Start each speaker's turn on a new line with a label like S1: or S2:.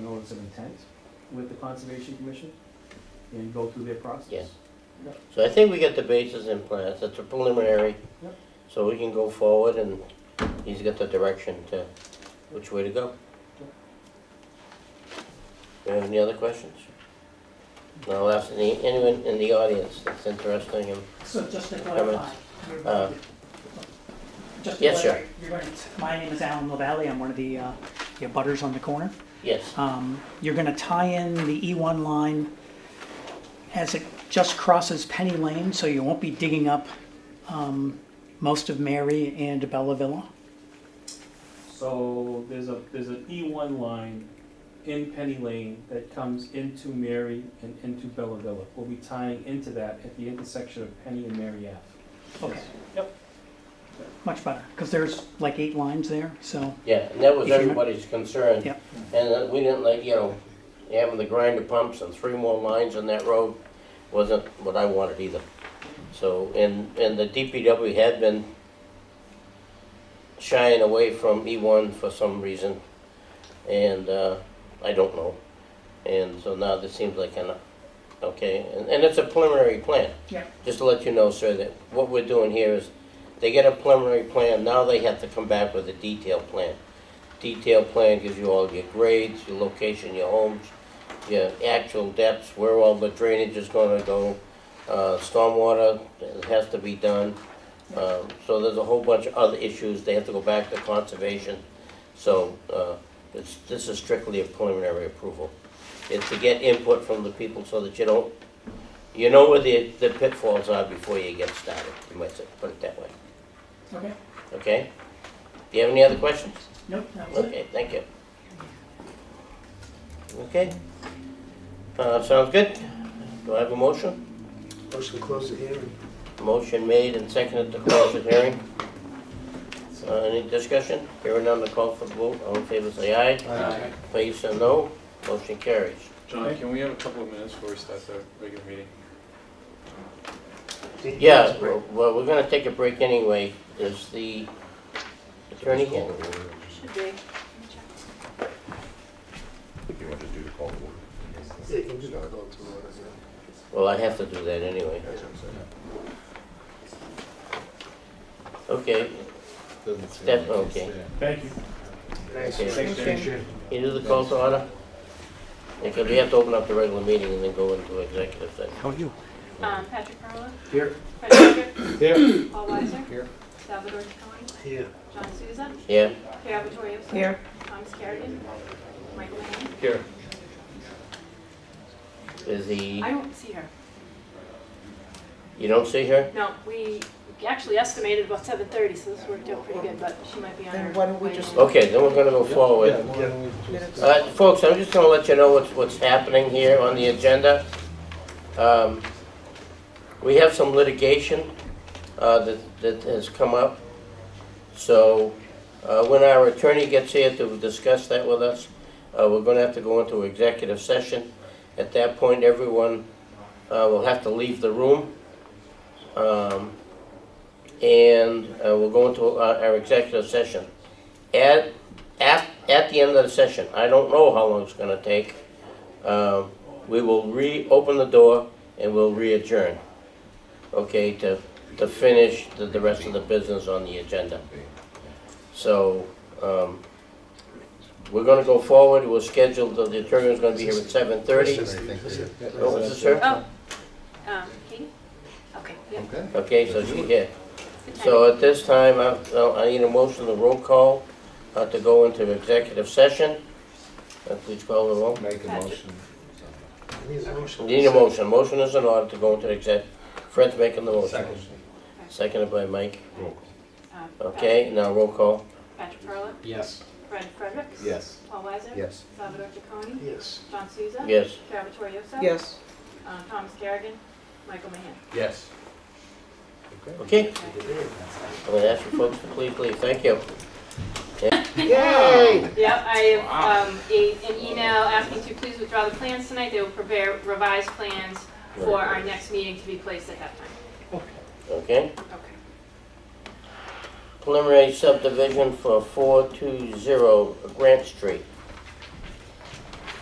S1: notice of intent with the Conservation Commission and go through their process.
S2: Yeah. So I think we get the bases in place, it's a preliminary.
S1: Yep.
S2: So we can go forward and he's got the direction to which way to go. Do you have any other questions? No, I'll ask any, anyone in the audience that's interesting and,
S3: So just to clarify, you're going to- just to
S2: uh, yes, sir.
S3: clarify, you're going to- my name is Alan Lavalley, I'm one of the, uh, the butters on the corner.
S2: yes,
S3: Um, You're going to tie in the E1 line as it just crosses Penny Lane, so you won't be digging up um, most of Mary and Bella Villa.
S1: So there's a, there's an E one line in Penny Lane that comes into Mary and into Bella Villa. We'll be tying into that at the intersection of Penny and Mary F.
S3: Okay.
S1: Yep.
S3: Much better, because there's like eight lines there, so,
S2: yeah, and that was
S3: If you-
S2: everybody's concern.
S3: Yep.
S2: And uh, we didn't like, you know, having the grinder pumps and three more lines on that road wasn't what I wanted either. So, and, and the DPW had been shying away from E1 for some reason, and, uh, I don't know. And so now this seems like an, okay, and, and it's a preliminary plan.
S3: Yeah.
S2: Just to let you know, sir, that what we're doing here is, they get a preliminary plan, now they have to come back with a detailed plan. Detailed plan gives you all your grades, your location, your homes, your actual depths, where all the drainage is gonna go, uh, stormwater it has to be done. Um, so there's a whole bunch of other issues, they have to go back to conservation. So, uh, it's, this is strictly a preliminary approval. It's to get input from the people so that you don't, you know where the, the pitfalls are before you get started, you might say, put it that way,
S3: okay,
S2: okay? Do you have any other questions?
S3: nope, that was it.
S2: Okay, thank you. Okay. Uh, sounds good. Do I have a motion?
S4: Motion to close the hearing.
S2: Motion made and seconded to close the hearing. Uh, any discussion? Hearing none, the call for the vote. All in favor, say aye.
S4: Aye.
S2: Please say no. Motion carries.
S5: John, can we have a couple of minutes before we start the regular meeting?
S2: Yeah, well, well, we're gonna take a break anyway. Is the attorney here?
S6: Should be.
S7: If you want to do the call to order.
S4: Yeah, you can just call it to order, yeah.
S2: Well, I have to do that anyway.
S4: That's what I'm
S2: Okay,
S4: saying.
S2: Step- okay.
S1: Thank you.
S4: Thanks.
S2: Okay. Thanks,
S1: Dan.
S4: Appreciate it.
S2: You do the call to order? Because we have to open up the regular meeting and then go into executive session.
S7: How are you?
S6: Um, Patrick Carla.
S4: Here.
S6: Fred Hager. Here. Paul Weiser.
S7: Here.
S6: Salvador Ticconi.
S4: Yeah.
S6: John Souza.
S2: Yeah?
S6: Pierre Vittorioso.
S3: Here.
S6: Thomas Carrigan. Michael Lane.
S5: Here.
S2: Is he,
S6: I don't see her.
S2: you don't see her?
S6: No, we actually estimated about seven thirty, so this worked out pretty good, but she might be on her.
S8: Then why don't we
S6: way
S8: just-
S6: in.
S2: Okay, then we're gonna go forward.
S8: minutes.
S2: Uh, folks, I'm just gonna let you know what's, what's happening here on the agenda. Um, We have some litigation, uh, that, that has come up. So, uh, when our attorney gets here to discuss that with us, uh, we're gonna have to go into executive session. At that point, everyone, uh, will have to leave the room. Um, and, uh, we'll go into our, our executive session. At, at, at the end of the session, I don't know how long it's gonna take, um, we will reopen the door and we'll re-adjourn, okay, to, to finish the, the rest of the business on the agenda. So, um, we're gonna go forward, we'll schedule, the the attorney is gonna be here at seven thirty. What was it, sir?
S6: Oh, um, Katie? Okay, yeah,
S7: Okay.
S2: Okay, so she's here.
S6: good timing.
S2: So at this time, I, uh, I need a motion to roll call, uh, to go into executive session. Uh, please call the roll.
S7: Make a motion.
S4: Need a motion.
S2: Need a motion, motion is in order to go into exec, Fred's making the motion. Seconded by Mike,
S7: Roll call.
S6: Um, Pat-
S2: okay, now roll call,
S6: Patrick Carla.
S7: Yes.
S6: Fred Fredericks.
S7: Yes.
S6: Paul Weiser.
S7: Yes.
S6: Salvador Ticconi.
S4: Yes.
S6: John Souza.
S2: yes.
S6: Pierre Vittorioso.
S8: Yes.
S6: Um, Thomas Carrigan. Michael Mahan.
S7: Yes.
S2: Okay, I'm gonna ask you folks to please leave, thank you.
S8: Yay!
S6: Yep, I have um, a- an email asking to please withdraw the plans tonight. They will prepare revised plans for our next meeting to be placed at that time.
S2: Okay,
S6: Okay.
S2: preliminary subdivision for four two zero Grant Street.